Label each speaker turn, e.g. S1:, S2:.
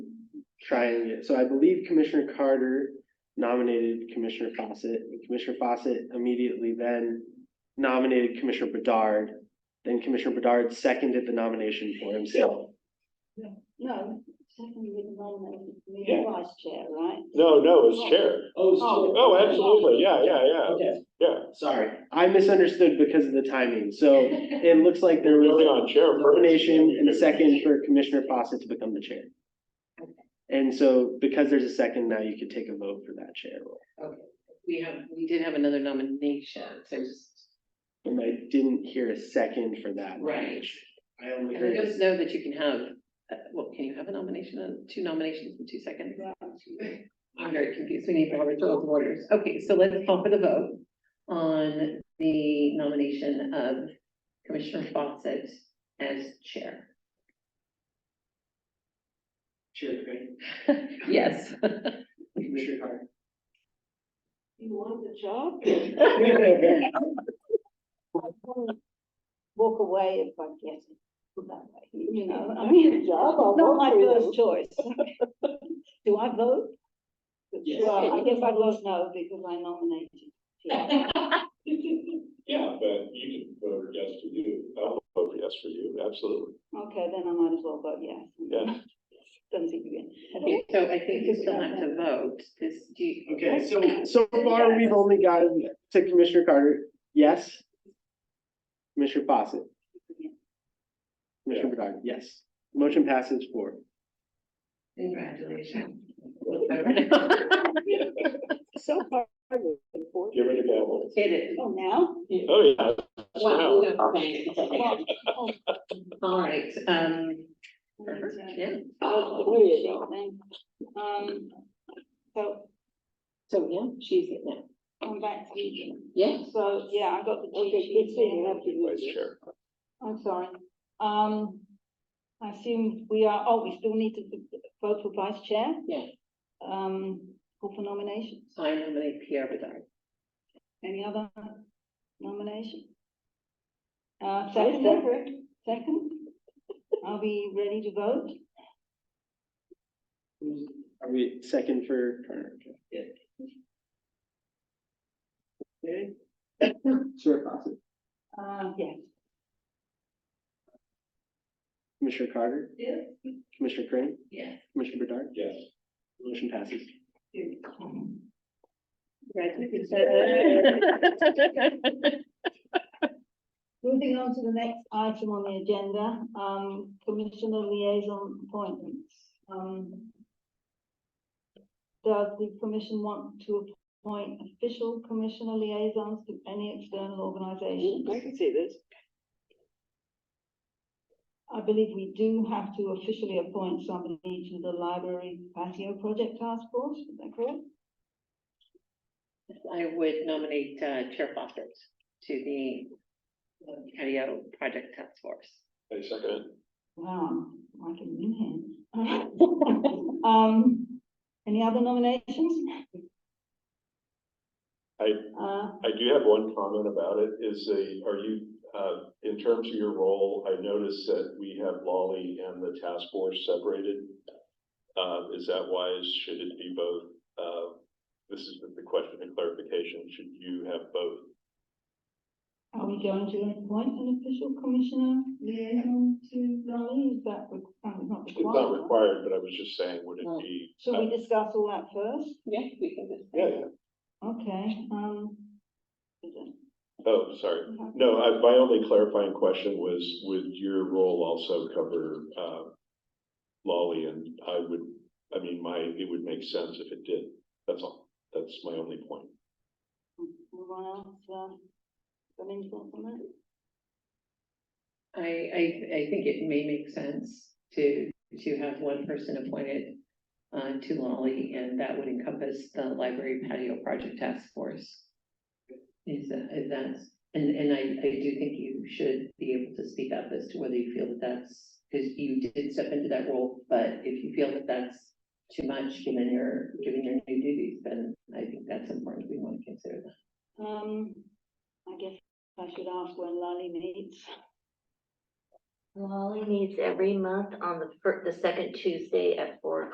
S1: trying it. So I believe Commissioner Carter nominated Commissioner Fawcett. and Commissioner Fawcett immediately then nominated Commissioner Bedard. Then Commissioner Bedard seconded the nomination for himself.
S2: No, second with the nomination,
S3: Yeah.
S2: the vice chair, right?
S3: No, no, it's chair.
S2: Oh.
S3: Oh, absolutely, yeah, yeah, yeah,
S1: Okay.
S3: yeah.
S1: Sorry, I misunderstood because of the timing. So it looks like there
S3: Really
S1: was
S3: on chair.
S1: a
S3: first.
S1: nomination and a second for Commissioner Fawcett to become the chair. And so because there's a second now, you could take a vote for that chair role.
S4: Okay, we have, we did have another nomination, so just,
S1: And I didn't hear a second for that.
S4: right.
S1: I only
S4: And I
S1: heard,
S4: just know that you can have, uh, well, can you have a nomination, and two nominations in two seconds? I'm very confused, we need Robert's rules of orders. Okay, so let's call for the vote on the nomination of Commissioner Fawcett as chair.
S1: Chair Craig,
S4: Yes.
S1: Commissioner Carter.
S2: You want the job? Walk away if I get it, put that way, you know, I mean, it's not my first choice. Do I vote?
S1: Yes.
S2: Well, I guess I vote no because I nominated. Yeah.
S3: Yeah, but you can vote yes for you. I'll vote yes for you, absolutely.
S2: Okay, then I might as well vote yes.
S3: Yeah.
S2: Don't think again.
S4: Okay, So I think we still have to vote, this, do you?
S1: Okay, so, so far, we've only gotten to Commissioner Carter, yes? Commissioner Fawcett? Commissioner Bedard, yes. Motion passes four.
S4: Congratulations.
S2: So far, we're in fourth.
S3: Give it a go.
S4: It is.
S2: Oh, now?
S3: Oh, yeah. Wow.
S4: Wow, yeah, okay.
S2: Oh,
S4: All right, um,
S2: and, uh,
S4: yeah.
S2: Oh, really? Um, so
S4: So, yeah, she's it now.
S2: I'm back to you.
S4: Yeah.
S2: So, yeah, I got the.
S3: Vice chair.
S2: I'm sorry. Um, I assume we are, oh, we still need to vote for vice chair?
S4: Yeah.
S2: Um, call for nominations.
S4: I nominate Pierre Bedard.
S2: Any other nomination? Uh, second, second? Are we ready to vote?
S1: Are we second for Carter? Yeah. Okay. Chair Fawcett,
S2: Uh, yes.
S1: Commissioner Carter,
S4: Yeah.
S1: Commissioner Crane,
S4: Yeah.
S1: Commissioner Bedard,
S3: Yes.
S1: motion passes.
S2: Moving on to the next item on the agenda, um, commissioner liaison appointments. Um. Does the commission want to appoint official commissioner liaisons to any external organization?
S5: I can see this.
S2: I believe we do have to officially appoint somebody to the library patio project task force, is that correct?
S4: I would nominate uh, Chair Foster to the uh, patio project task force.
S3: I second
S2: Wow, I can win here. Um, any other nominations?
S3: I-
S2: Uh,
S3: it. I do have one comment about it, is a, are you, uh, in terms of your role, I noticed that we have Lolly and the task force separated. Uh, is that wise? Should it be both? Uh, this is the question and clarification. Should you have both?
S2: Are we going to appoint an official commissioner liaison to Raleigh? Is that re- uh, not
S3: It's not
S2: required?
S3: required, but I was just saying, would
S4: Well,
S3: it be?
S2: Should we discuss all that first?
S4: Yeah, we can just.
S3: Yeah, yeah.
S2: Okay, um. is it-
S3: Oh, sorry. No, I, my only clarifying question was, would your role also cover, uh, Lolly? And I would, I mean, my, it would make sense if it did. That's all. That's my only point.
S2: Everyone else, um, got any thoughts on that?
S4: I, I, I think it may make sense to, to have one person appointed uh, to Lolly, and that would encompass the library patio project task force. Is that, is that, and, and I, I do think you should be able to speak up as to whether you feel that that's, because you did step into that role, but if you feel that that's too much, given your, given your new duties, then I think that's important, we want to consider that.
S2: Um, I guess I should ask when Lolly meets.
S6: Lolly meets every month on the fir- the second Tuesday at four